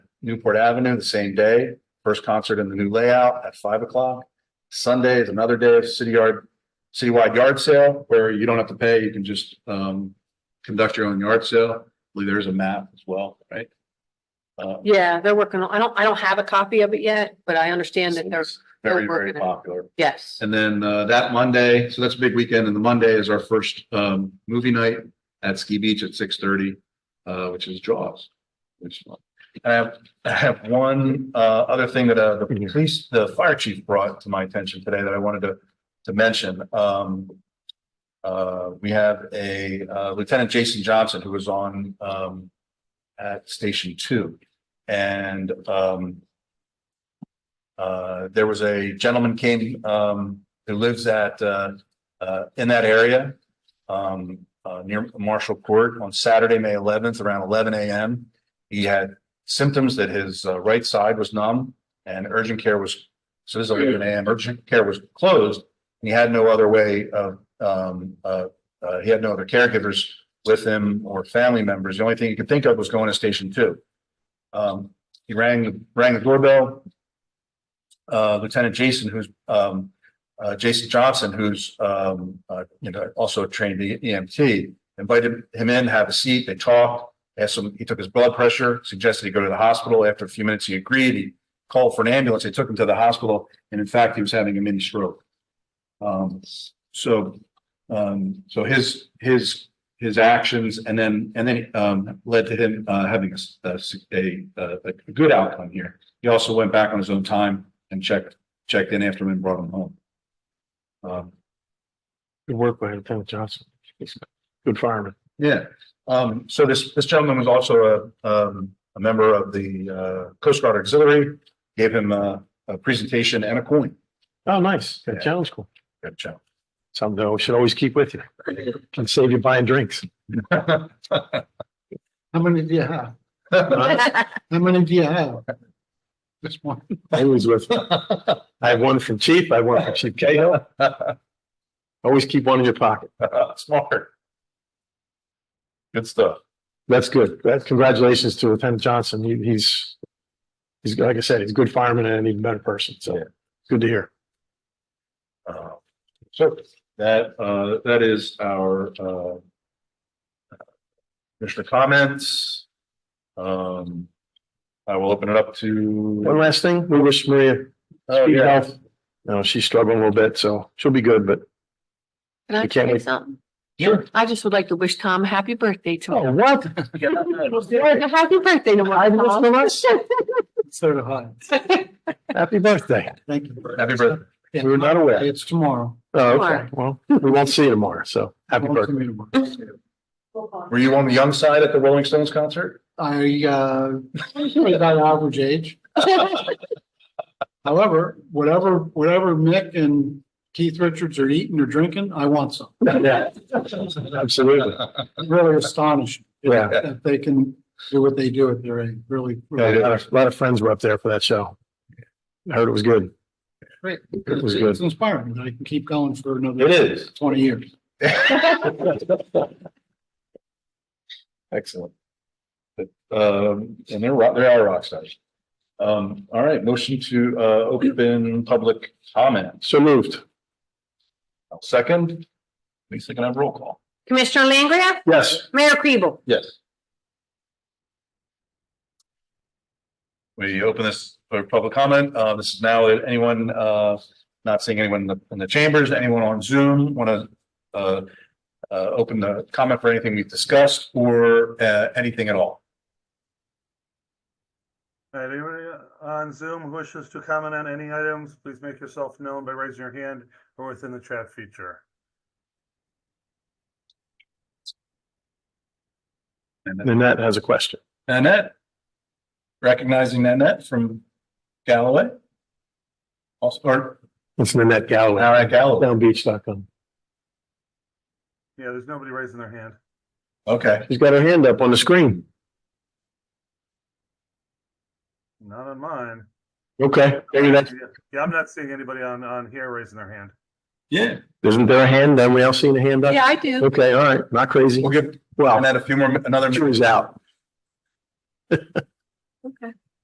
Newport Avenue the same day, first concert in the new layout at five o'clock. Sunday is another day of city yard, citywide yard sale where you don't have to pay, you can just um conduct your own yard sale. I believe there is a map as well, right? Uh, Yeah, they're working on, I don't, I don't have a copy of it yet, but I understand that they're, it's Very, very they're working on it. popular. yes. And then uh, that Monday, so that's a big weekend, and the Monday is our first um, movie night at Ski Beach at six thirty, uh, which is Jaws. Which uh, I have, I have one uh, other thing that uh, the police, the fire chief brought to my attention today that I wanted to to mention. Um, uh, we have a uh, Lieutenant Jason Johnson who was on um at Station Two, and um uh, there was a gentleman came, um, who lives at, uh, uh, in that area. Um, uh, near Marshall Court on Saturday, May eleventh, around eleven AM. He had symptoms that his uh, right side was numb and urgent care was, so this is eleven AM, urgent care was closed. And he had no other way of, um, uh, uh, he had no other caregivers with him or family members. The only thing he could think of was going to station two. Um, he rang, rang the doorbell, uh, Lieutenant Jason, who's, um, uh, Jason Johnson, who's, um, uh, you know, also a trained EMT, invited him in, have a seat, they talked, asked him, he took his blood pressure, suggested he go to the hospital. After a few minutes, he agreed. He called for an ambulance. They took him to the hospital, and in fact, he was having a mini stroke. Um, so, um, so his, his, his actions and then, and then, um, led to him, uh, having a s- a, s- a, a, a good outcome here. He also went back on his own time and checked, checked in after him and brought him home. Um, Good work by Lieutenant Johnson. He's a Good fireman. yeah, um, so this, this gentleman was also a, um, a member of the, uh, Coast Guard Auxiliary. Gave him a, a presentation and a coin. Oh, nice. Yeah. That sounds cool. Good job. Something that we should always keep with you. And save you buying drinks. How many do you have? How many do you have? This one. I was with, I have one from Chief, I have one from Chief Cahill. Always keep one in your pocket. Smart. Good stuff. That's good. That, congratulations to Lieutenant Johnson. He, he's, he's, like I said, he's a good fireman and an even better person. Yeah. So good to hear. Uh, So that, uh, that is our, uh, Commissioner comments. Um, I will open it up One to. last thing, we wish Maria Oh, speed yeah. health. You know, she's struggling a little bit, so she'll be good, but. Can I You can't say wait. something? Sure. I just would like to wish Tom a happy birthday Oh, tomorrow. what? Happy birthday tomorrow. Tom. So do I. Happy birthday. Thank you. Happy birthday. We were not aware. It's tomorrow. Oh, okay. Sure. Well, we won't see you tomorrow, so happy Won't birthday. see me tomorrow. Were you on the young side at the Rolling Stones concert? I, uh, usually about average age. However, whatever, whatever Mick and Keith Richards are eating or drinking, I want some. Yeah, absolutely. It's Really astonishing Yeah. that they can do what they do at their age, really. Yeah, A really- lot of- a lot of friends were up there for that show. I heard it was good. Great. It was It's good. inspiring that I can keep going for another. It is. Twenty years. Excellent. But, Um, and they're rock, they are rock stars. Um, all right, motion to, uh, open public comment. So moved. I'll Second, Lisa can I have roll call. Commissioner Langria? Yes. Mayor Kribel? Yes. We open this for public comment. Uh, this is now anyone, uh, not seeing anyone in the, in the chambers, anyone on Zoom want to, uh, uh, open the comment for anything we've discussed or, uh, anything at all. All right, anyone on Zoom who wishes to comment on any items, please make yourself known by raising your hand or within the chat feature. Nanette has a question. Nanette? Recognizing Nanette from Galloway? Also, or, It's Nanette Galloway. now at Galloway. Downbeach.com. Yeah, there's nobody raising their hand. Okay. She's got her hand up on the screen. Not on mine. Okay, maybe that's, Yeah, I'm not seeing anybody on, on here raising their hand. Yeah. isn't there a hand? Then we all seen a hand up? Yeah, I do. Okay, all right, not crazy. We'll give Well, Nanette a few more, another. she was out. Okay.